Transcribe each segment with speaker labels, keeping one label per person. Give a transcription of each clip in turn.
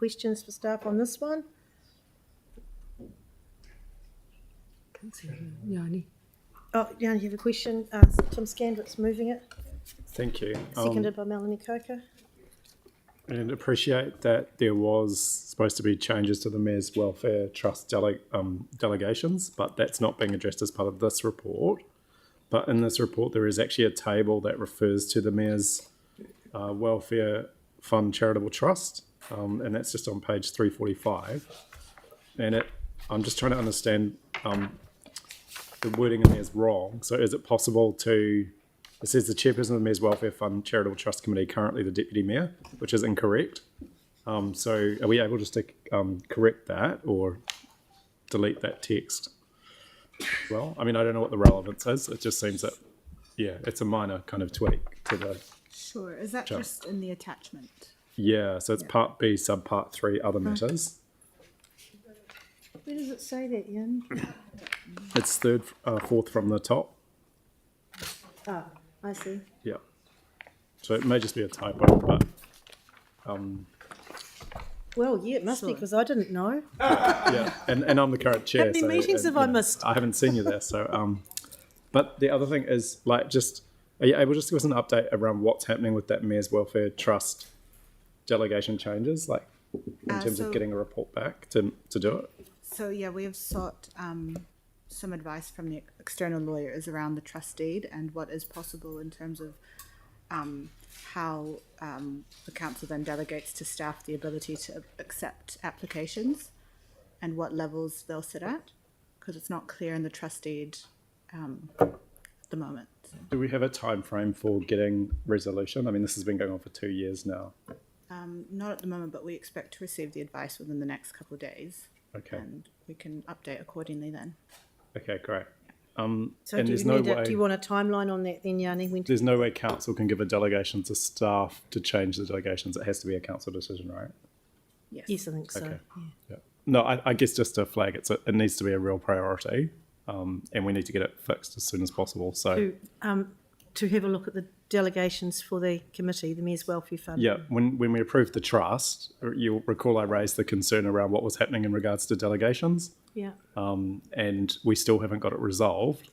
Speaker 1: Questions for staff on this one?
Speaker 2: Can't see him. Yanni.
Speaker 1: Oh, yeah, you have a question? Uh, Tim Scandrick's moving it,
Speaker 3: Thank you. Um,
Speaker 1: seconded by Melanie Coker.
Speaker 3: and appreciate that there was supposed to be changes to the Mayor's Welfare Trust dele- um, delegations, but that's not being addressed as part of this report. But in this report, there is actually a table that refers to the Mayor's uh, Welfare Fund Charitable Trust, um, and that's just on page 345. And it, I'm just trying to understand um, the wording in there is wrong. So is it possible to it says the chairperson of the Mayor's Welfare Fund Charitable Trust Committee, currently the deputy mayor, which is incorrect. Um, so are we able just to um, correct that or delete that text? Well, I mean, I don't know what the relevance is. It just seems that, yeah, it's a minor kind of tweak to the,
Speaker 4: Sure, is that
Speaker 3: Sure.
Speaker 4: just in the attachment?
Speaker 3: yeah, so it's part B, sub part three, other matters.
Speaker 1: Where does it say that, Ian?
Speaker 3: It's third, uh, fourth from the top.
Speaker 1: Ah, I see.
Speaker 3: Yeah. So it may just be a typo, but
Speaker 1: Well, yeah, it must be,
Speaker 4: Sure.
Speaker 1: because I didn't know.
Speaker 3: yeah, and, and I'm the current chair.
Speaker 1: many
Speaker 3: so,
Speaker 1: meetings
Speaker 3: and,
Speaker 1: have I
Speaker 3: you know,
Speaker 1: missed?
Speaker 3: I haven't seen you there, so um, but the other thing is like just are you able just to give us an update around what's happening with that mayor's welfare trust delegation changes, like in
Speaker 4: Uh,
Speaker 3: terms
Speaker 4: so-
Speaker 3: of getting a report back to to do it?
Speaker 4: So, yeah, we have sought um, some advice from the external lawyers around the trust deed and what is possible in terms of um, how um, the council then delegates to staff the ability to accept applications and what levels they'll sit at, because it's not clear in the trust deed um, at the moment.
Speaker 3: Do we have a time frame for getting resolution? I mean, this has been going on for two years now.
Speaker 4: Um, not at the moment, but we expect to receive the advice within the next couple of days.
Speaker 3: Okay.
Speaker 1: Um,
Speaker 4: And we can update accordingly then.
Speaker 3: Okay, great.
Speaker 1: So
Speaker 3: And
Speaker 1: do you
Speaker 3: there's no
Speaker 1: need, a- do
Speaker 3: way-
Speaker 1: you want a timeline on that then, Yanni? When-
Speaker 3: There's no way council can give a delegation to staff to change the delegations. It has to be a council decision, right?
Speaker 1: Yes, I think so.
Speaker 3: Okay. Yeah. No, I, I guess just to flag it's a, it needs to be a real priority, um, and we need to get it fixed as soon as possible. So
Speaker 1: To have a look at the delegations for the committee, the Mayor's Welfare Fund.
Speaker 3: yeah, when when we approved the trust, uh, you'll recall I raised the concern around what was happening in regards to delegations,
Speaker 1: Yeah,
Speaker 3: um, and we still haven't got it resolved.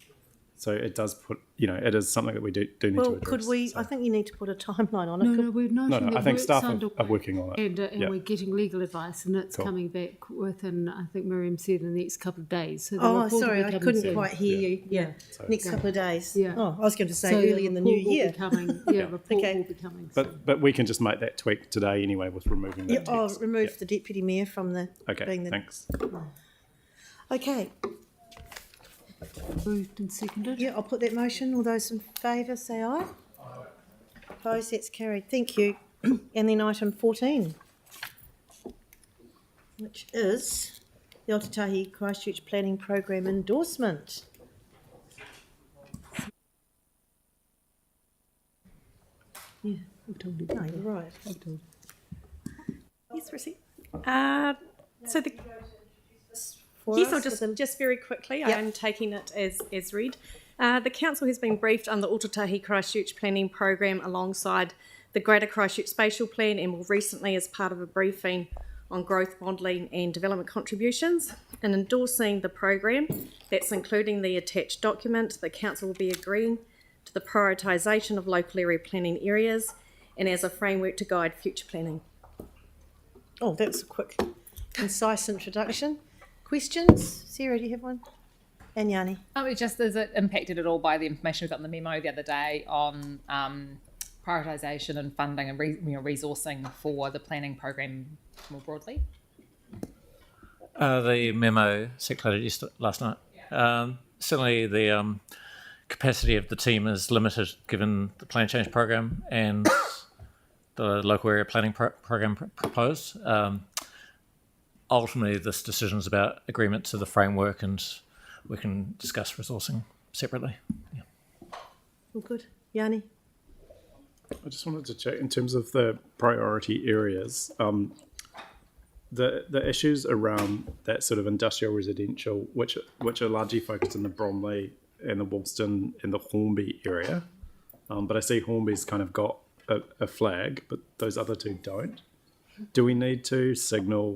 Speaker 3: So it does put you know it is something that we do do need to
Speaker 1: well,
Speaker 3: address.
Speaker 1: could we,
Speaker 3: so-
Speaker 1: I think you need to put a timeline on it.
Speaker 2: No,
Speaker 1: Could-
Speaker 2: no, we're not.
Speaker 3: No, no,
Speaker 2: the
Speaker 3: I think
Speaker 2: work's
Speaker 3: staff are-
Speaker 2: underway.
Speaker 3: are working on it.
Speaker 2: And, uh, and
Speaker 3: Yeah.
Speaker 2: we're getting legal advice, and it's
Speaker 3: Cool.
Speaker 2: coming back within, I think Miriam said, in the next couple of days. So the
Speaker 1: Oh,
Speaker 2: report will be
Speaker 1: sorry, I
Speaker 2: coming
Speaker 1: couldn't
Speaker 2: soon.
Speaker 1: quite hear you. Yeah, next couple of days.
Speaker 2: Yeah.
Speaker 1: Oh, I was going to say
Speaker 2: So the
Speaker 1: early in the new
Speaker 2: report will be
Speaker 1: year.
Speaker 2: Coming, yeah, report
Speaker 1: Okay.
Speaker 2: will be coming. soon.
Speaker 3: But but we can just make that tweak today anyway with removing that
Speaker 1: Yeah, oh,
Speaker 3: text.
Speaker 1: remove the deputy mayor from the,
Speaker 3: Yeah. Okay,
Speaker 1: being the. Oh.
Speaker 3: thanks.
Speaker 1: Okay,
Speaker 2: Moved and seconded.
Speaker 1: yeah, I'll put that motion. All those in favour, say aye. Opposed, that's carried. Thank you. And then item fourteen, which is the Otatahi Christchurch Planning Programme endorsement.
Speaker 2: Yeah, I've told you.
Speaker 1: No, you're right.
Speaker 2: I've told you.
Speaker 5: Yes, Rissy. Uh, so the
Speaker 1: For
Speaker 5: yes, I'll
Speaker 1: us,
Speaker 5: just
Speaker 1: with
Speaker 5: just very quickly.
Speaker 1: Yep.
Speaker 5: I'm taking it as as read. Uh, the council has been briefed on the Otatahi Christchurch planning program alongside the Greater Christchurch Spatial Plan, and more recently as part of a briefing on growth modelling and development contributions. And endorsing the program, that's including the attached document. The council will be agreeing to the prioritisation of local area planning areas, and as a framework to guide future planning.
Speaker 1: the- Oh, that's a quick, concise introduction. Questions? Sarah, do you have one? And Yanni?
Speaker 6: Um, it just is it impacted at all by the information we got in the memo the other day on um, prioritisation and funding and re- you know, resourcing for the planning program more broadly?
Speaker 7: Uh, the memo circulated yester- last night. Um, certainly, the um, capacity of the team is limited given the plan change program and the local area planning pro- program pr- proposed. Um, ultimately, this decision is about agreement to the framework, and we can discuss resourcing separately.
Speaker 1: All good. Yanni?
Speaker 3: I just wanted to check in terms of the priority areas. Um, the the issues around that sort of industrial residential, which which are largely focused in the Bromley and the Wolston and the Hornby area, um, but I see Hornby's kind of got a, a flag, but those other two don't. Do we need to signal